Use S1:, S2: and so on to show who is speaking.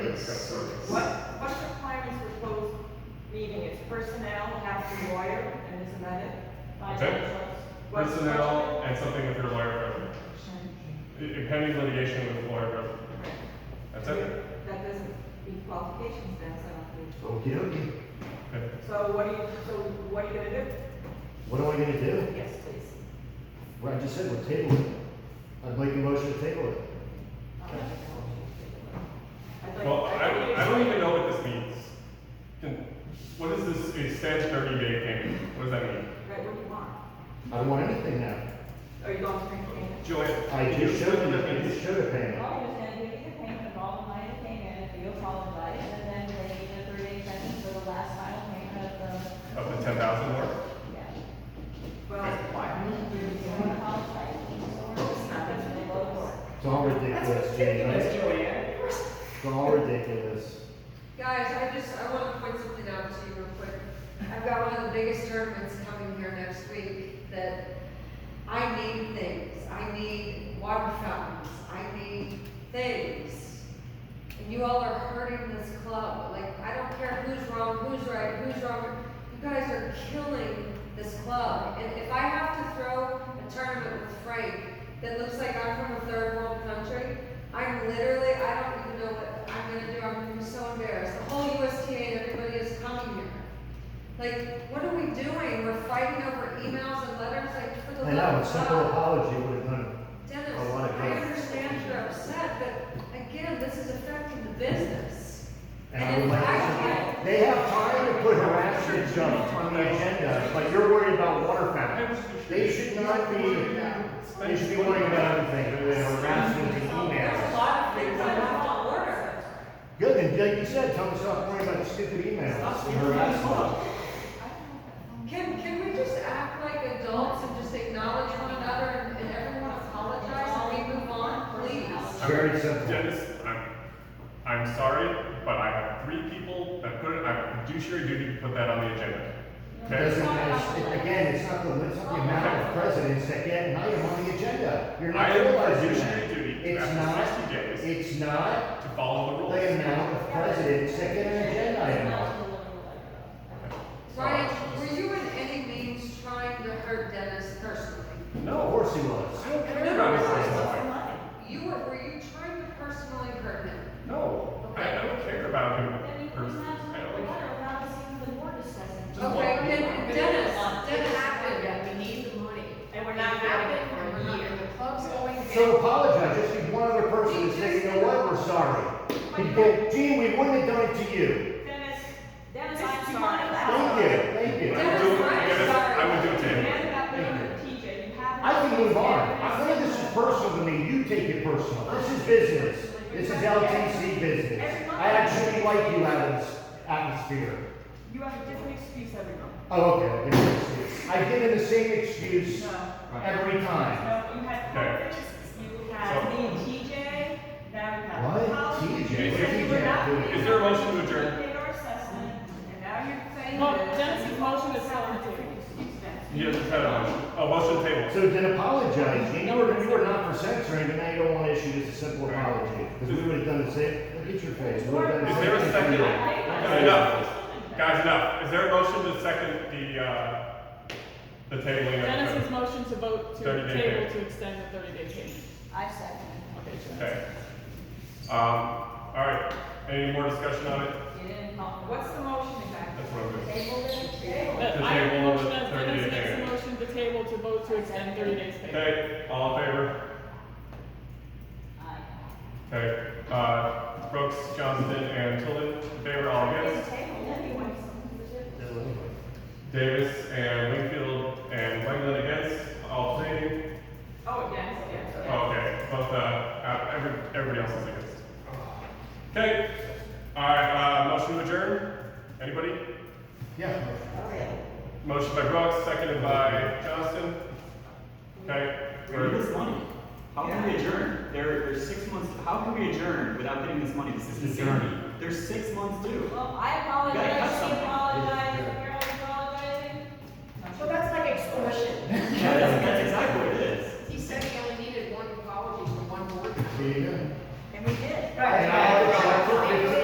S1: Yes.
S2: What, what requirements for closed meeting? It's personnel, half the lawyer, and isn't that it?
S1: Okay.
S2: What-
S1: Personnel and something with your lawyer present. I- Impending litigation with the lawyer present. That's it.
S2: That doesn't meet qualifications then, so I don't think.
S3: Okey dokey.
S1: Okay.
S2: So what are you, so what are you gonna do?
S3: What are we gonna do?
S2: Yes, please.
S3: Well, I just said, we're tabling. I'd like a motion to table it.
S2: I'll make a motion to table it. I'd like-
S1: Well, I
S2: I'd like
S1: don't,
S2: to
S1: I don't even
S2: explain-
S1: know what this means. Can- What is this extend thirty day payment? What does that mean?
S2: Right, what do you want?
S3: I don't want anything now.
S2: Are you going to maintain it?
S1: Joanne,
S3: I
S1: can
S3: just
S1: explain
S3: showed
S1: what
S3: you,
S1: that
S3: I
S1: means?
S3: just showed a payment.
S4: Well, you're saying we get the payment of all the money that came in, if you apologize, and then they need a thirty-day sentence for the last final payment of the.
S1: Of the ten thousand mark?
S4: Yeah.
S2: Well, why?
S4: If you wanna apologize, so we're just not gonna be able to-
S3: It's all ridiculous, Jane, right? It's all ridiculous.
S5: Guys, I just, I want to point something out to you real quick. I've got one of the biggest tournaments coming here next week that I need things. I need water fountains. I need things. And you all are hurting this club. Like, I don't care who's wrong, who's right, who's wrong. You guys are killing this club. And if I have to throw a tournament with Frank that looks like I'm from a third world country, I'm literally, I don't even know what I'm gonna do. I'm so embarrassed. The whole USTA and everybody is coming here. Like, what are we doing? We're fighting over emails and letters, like, for the
S3: I
S5: love
S3: know, a
S5: of
S3: simple
S5: God.
S3: apology would have done
S5: Dennis,
S3: I wanna
S5: I
S3: go.
S5: understand you're upset, but again, this is affecting the business.
S3: it. And I would like to,
S5: I-
S3: they have time to put harassment junk on the agenda, but you're worried about water fountains. They should not be, they should be worried about everything, whether harassment and
S4: There's a
S3: emails.
S4: lot of things that are out of order.
S3: Good, and like you said, tell them to stop worrying about stupid emails and harassment.
S5: Can, can we just act like adults and just acknowledge one another and, and everyone apologize and we move on, please?
S3: It's very simple.
S1: Dennis, I'm, I'm sorry, but I have three people that put it, I have fiduciary duty to put that on the agenda.
S3: It
S1: Okay?
S3: Doesn't, it's- it- again, it's not the, it's not the amount of presidents that get an item on the agenda.
S1: I
S3: You're not
S1: have
S3: realizing
S1: fiduciary
S3: that.
S1: duty
S3: It's
S1: after
S3: not,
S1: sixty days
S3: it's not
S1: to follow the
S3: the
S1: rules.
S3: amount of presidents that get an agenda item on.
S5: Ryan, were you in any means trying to hurt Dennis personally?
S3: No, of course he was.
S1: I don't care about his personal life.
S5: You were, were you trying to personally hurt him?
S1: No, I, I don't care about
S4: Then
S1: him
S4: you can
S1: personally.
S4: have
S1: I
S4: some
S1: don't care.
S4: water without seeing the board discussing.
S1: Just
S5: Okay,
S1: one.
S5: then Dennis, Dennis,
S6: we need the money.
S2: And we're not
S6: It happened
S2: getting it for a year.
S6: The club's going down.
S3: So apologize, just be one other person and say, you know what, we're sorry. People, gee, we wouldn't have done it to you.
S2: Dennis, Dennis,
S4: This
S2: I'm
S4: is
S2: sorry.
S4: not
S3: Thank you, thank you.
S1: I would do it, Dennis, I would do it to him.
S2: Forget about being a teacher, you have.
S3: I can move on. I think this is personal to me, you take it personal. This is business. This is LTC business. I actually like you, Adams, atmosphere.
S2: You have a different excuse every month.
S3: Oh, okay, I'll give you an excuse. I give him the same excuse
S2: No.
S3: every time.
S2: No, you had
S1: Okay.
S2: conference, you had
S1: So-
S2: me and TJ, now you have.
S3: What?
S2: Colin.
S3: TJ?
S2: You said you were
S3: TJ?
S2: not
S3: Is
S2: being
S1: there a motion to adjourn?
S2: paid our assessment, and now you're saying
S7: Well,
S2: that-
S7: Dennis's motion
S2: You
S7: is
S2: have a
S7: still on the table.
S2: different excuse now.
S1: You just had a motion, a motion table.
S3: So then apologize. You were, you were not for censoring, but now you don't want to issue just a simple apology. Because we would have done the same, look at your face. We would have done the
S1: Is there a
S3: same
S1: second?
S3: thing to you.
S1: Guys, enough. Guys, enough. Is there a motion to second the, uh, the tabling? of-
S7: Dennis's motion to vote to
S1: 30 day
S7: table
S1: period.
S7: to extend the thirty day Uh, payment.
S4: I second.
S7: Okay, sure.
S1: Okay. Um, all right. Any more discussion on it?
S2: You didn't call. What's the motion exactly?
S1: That's what I'm doing.
S4: Table it, table it.
S7: But I have a
S1: table
S7: motion
S1: the
S7: as
S1: 30 day
S7: Dennis makes
S1: period.
S7: a motion to table to vote to extend thirty days payment.
S1: Okay, all in favor?
S4: Aye.
S1: Okay, uh, Brooks, Johnston, and Tilden, in favor, all against?
S3: No, anyway.
S1: Davis and Wingfield and Wegland against, all abstaining?
S2: Oh, yes, yes, yes.
S1: Okay, both, uh, uh, every, everybody else is against. Okay, all right, uh, motion to adjourn? Anybody?
S3: Yeah.
S1: Motion by Brooks, seconded by Johnston. Okay.
S8: We need
S1: we're-
S8: this money. How can we adjourn? There, there's six months, how can we adjourn without getting this money? This is
S3: Adjourn.
S2: Oh.
S8: insanity. There's six months due.
S4: Well, I apologize, she apologized,